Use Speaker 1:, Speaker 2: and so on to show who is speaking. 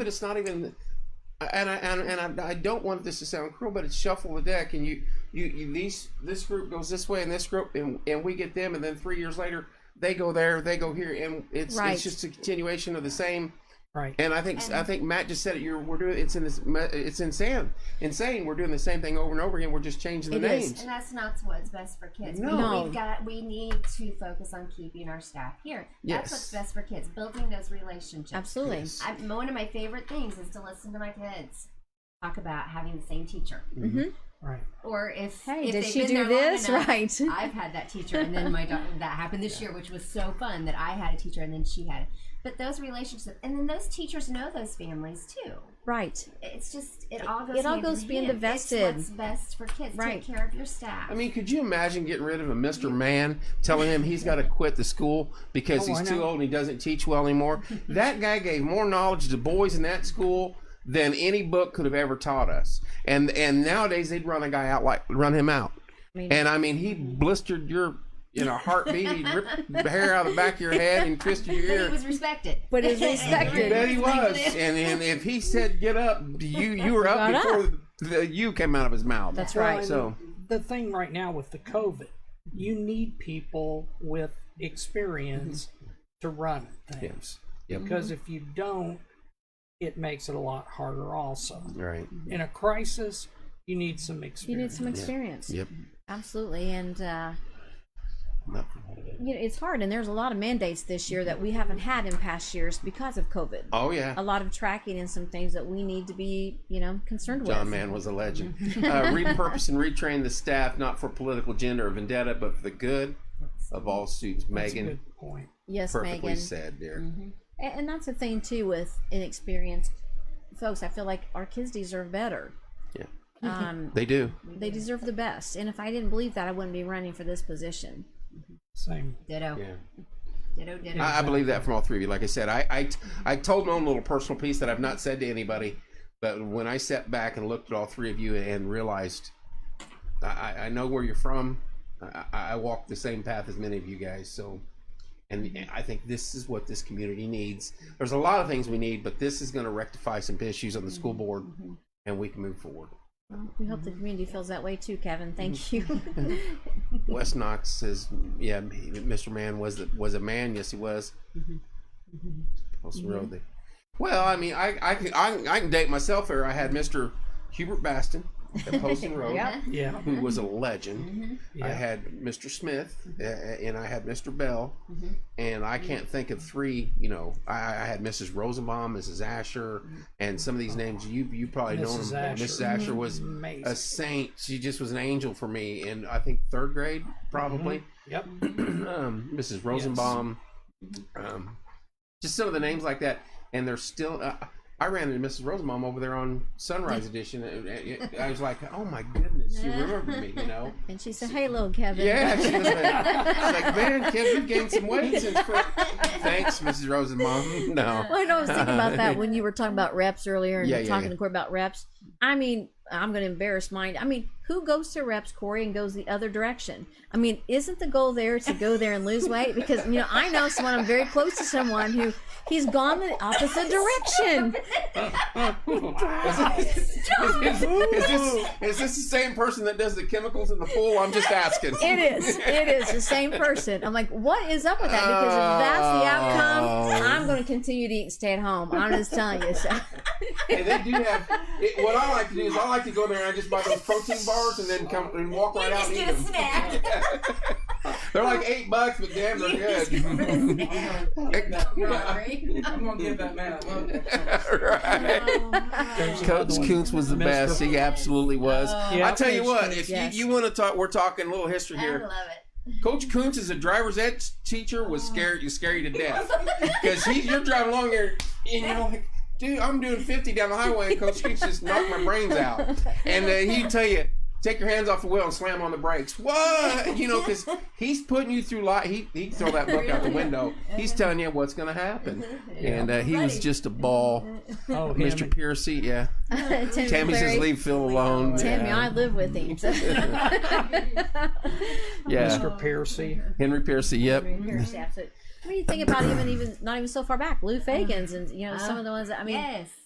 Speaker 1: but it's not even. And I and, and I, I don't want this to sound cruel, but it's shuffle the deck, and you you, you these this group goes this way, and this group, and and we get them, and then three years later they go there, they go here, and it's
Speaker 2: Right.
Speaker 1: it's just a continuation of the same.
Speaker 3: Right.
Speaker 1: And I think I think Matt just said it. You're we're doing it's in this it's insane insane. We're doing the same thing over and over again. We're just changing the
Speaker 2: It is.
Speaker 1: names.
Speaker 4: And that's not what's best for kids. We-
Speaker 1: No.
Speaker 4: We've got we need to focus on keeping our staff here.
Speaker 1: Yes.
Speaker 4: That's what's best for kids, building those relationships.
Speaker 2: Absolutely.
Speaker 4: I, one of my favorite things is to listen to my kids talk about having the same teacher.
Speaker 3: Right.
Speaker 4: Or if
Speaker 2: Mm-hmm. Hey,
Speaker 4: if
Speaker 2: did
Speaker 4: they've
Speaker 2: she
Speaker 4: been
Speaker 2: do
Speaker 4: there long
Speaker 2: this?
Speaker 4: enough,
Speaker 2: Right.
Speaker 4: I've had that teacher, and then my daughter that happened this year, which was so fun that I had a teacher and then she had. it. But those relationships, and then those teachers know those families too.
Speaker 2: Right.
Speaker 4: It's just it all goes.
Speaker 2: It all
Speaker 4: hand in
Speaker 2: goes being
Speaker 4: hand.
Speaker 2: invested.
Speaker 4: It's what's best for kids.
Speaker 2: Right.
Speaker 4: Take care of your staff.
Speaker 1: I mean, could you imagine getting rid of a Mr. Man telling him he's got to quit the school because
Speaker 3: Oh, I
Speaker 1: he's too
Speaker 3: know.
Speaker 1: old and he doesn't teach well anymore? that guy gave more knowledge to boys in that school than any book could have ever taught us. And and nowadays they'd run a guy out like run him out.
Speaker 2: mean-
Speaker 1: and I mean, he blistered your you know heartbeat, he ripped the hair out of the back of your head and twisted your
Speaker 4: but he
Speaker 1: ear.
Speaker 4: was respected.
Speaker 2: But it's
Speaker 1: You
Speaker 2: respected.
Speaker 1: bet he was. And, and if he said get up, you you were up
Speaker 2: Got up.
Speaker 1: before the you came out of his mouth.
Speaker 2: That's
Speaker 3: Well,
Speaker 2: right.
Speaker 3: and
Speaker 1: So-
Speaker 3: the thing right now with the COVID, you need people with experience to run things.
Speaker 1: Yep.
Speaker 3: Because if you don't, it makes it a lot harder. Also,
Speaker 1: Right.
Speaker 3: in a crisis, you need some
Speaker 2: You need
Speaker 3: experience.
Speaker 2: some experience.
Speaker 1: Yep.
Speaker 2: Absolutely. And uh,
Speaker 1: Nothing.
Speaker 2: you know, it's hard. And there's a lot of mandates this year that we haven't had in past years because of COVID.
Speaker 1: Oh yeah.
Speaker 2: A lot of tracking and some things that we need to be, you know, concerned with.
Speaker 1: John Mann was a legend. Uh, repurpose and retrain the staff not for political agenda or vendetta, but for the good of all students.
Speaker 3: That's a
Speaker 1: Megan,
Speaker 3: good Mm-hmm. point.
Speaker 2: Yes,
Speaker 1: perfectly
Speaker 2: Megan.
Speaker 1: said, dear.
Speaker 2: A- And that's the thing too with inexperienced folks. I feel like our kids deserve better.
Speaker 1: Yeah,
Speaker 2: Um,
Speaker 1: they do.
Speaker 2: they deserve the best. And if I didn't believe that, I wouldn't be running for this position.
Speaker 3: Same.
Speaker 4: Ditto.
Speaker 1: Yeah.
Speaker 4: Ditto. Ditto.
Speaker 1: I, I believe that from all three of you. Like I said, I, I, I told my own little personal piece that I've not said to anybody, but when I sat back and looked at all three of you and realized, I, I- I know where you're from. I, I I walk the same path as many of you guys. So, and and I think this is what this community needs. There's a lot of things we need, but this is going to rectify some issues on the school board, and we can move forward.
Speaker 2: We hope
Speaker 3: Mm-hmm.
Speaker 2: the community feels that way too, Kevin. Thank you.
Speaker 1: Mm-hmm. Wes Knox says, "Yeah, Mr. Man was the, was a man. Yes, he was." Also wrote that- Well, I mean, I I can I, can- I can date myself here. I had Mr. Hubert Baston at Poston Road,
Speaker 3: Yeah.
Speaker 1: who was a legend. I
Speaker 3: Yeah.
Speaker 1: had Mr. Smith, uh, and I had Mr. Bell, and I can't think of three. You know, I, I had Mrs. Rosenbaum, Mrs. Asher, and some of these names you you probably know.
Speaker 3: Mrs.
Speaker 1: them.
Speaker 3: Asher. Mm-hmm.
Speaker 1: Mrs. Asher was a
Speaker 3: Amazing.
Speaker 1: saint. She just was an angel for me. And I think third grade, probably.
Speaker 3: Yep.
Speaker 1: um, Mrs. Rosenbaum. Um, just some of the names like that. And they're still. Uh, I ran into Mrs. Rosenbaum over there on Sunrise Edition. and- and I was like, oh my goodness, you remember me, you know?
Speaker 2: and she said, "Hey, little Kevin."
Speaker 1: Yeah, she was like, she's like, man, Kev, you've gained some weight since. fir-" Thanks, Mrs. Rosenbaum. No.
Speaker 2: Well, I know I was thinking about that when you were talking about reps earlier and
Speaker 1: Yeah, yeah,
Speaker 2: talking
Speaker 1: yeah.
Speaker 2: to Corey about reps. I mean, I'm going to embarrass mine. I mean, who goes to reps, Corey, and goes the other direction? I mean, isn't the goal there to go there and lose weight? Because, you know, I know someone, I'm very close to someone who he's gone the opposite direction.
Speaker 1: Is, is this, is this the same person that does the chemicals in the pool? I'm just asking.
Speaker 2: It is. It is the same person. I'm like, what is up with that? Because if that's the outcome,
Speaker 1: Oh.
Speaker 2: I'm going to continue to eat and stay at home. I'm just telling you. So.
Speaker 1: And they do have. It, what I like to do is I like to go there and I just buy those protein bars and then come and walk right out and
Speaker 4: Just do
Speaker 1: eat
Speaker 4: a
Speaker 1: them.
Speaker 4: snack.
Speaker 1: They're like eight bucks, but damn, they're good.
Speaker 4: Rory.
Speaker 5: I'm gonna give that man a love.
Speaker 1: right. Coach Koontz was the
Speaker 3: Mr.
Speaker 1: best. He absolutely was.
Speaker 4: Oh.
Speaker 3: Yeah.
Speaker 1: I tell you
Speaker 2: Coach
Speaker 1: what,
Speaker 2: Koontz,
Speaker 1: if
Speaker 2: yes.
Speaker 1: you, you want to talk, we're talking a little history
Speaker 4: I
Speaker 1: here.
Speaker 4: love it.
Speaker 1: Coach Koontz is a driver's ed teacher was scared you scary to death because he you're driving along here and you're like dude I'm doing 50 down the highway and Coach Koontz just knocked my brains out and uh, he'd tell you take your hands off the wheel and slam on the brakes what you know because he's putting you through lot he he throw that book out the window he's telling you what's gonna happen and uh, he was just a ball
Speaker 3: Oh, him
Speaker 1: Mr.
Speaker 3: and-
Speaker 1: Piercy yeah
Speaker 2: Tammy,
Speaker 1: Tammy says
Speaker 2: Clary,
Speaker 1: leave Phil alone
Speaker 2: Tammy,
Speaker 1: yeah.
Speaker 2: I live with him. so.
Speaker 1: yeah
Speaker 3: Mr. Piercy.
Speaker 1: Henry Piercy yep
Speaker 2: Pierce, absolutely. What do you think about even even not even so far back, Lou Fagans and you know some of the ones that I mean
Speaker 4: Yes.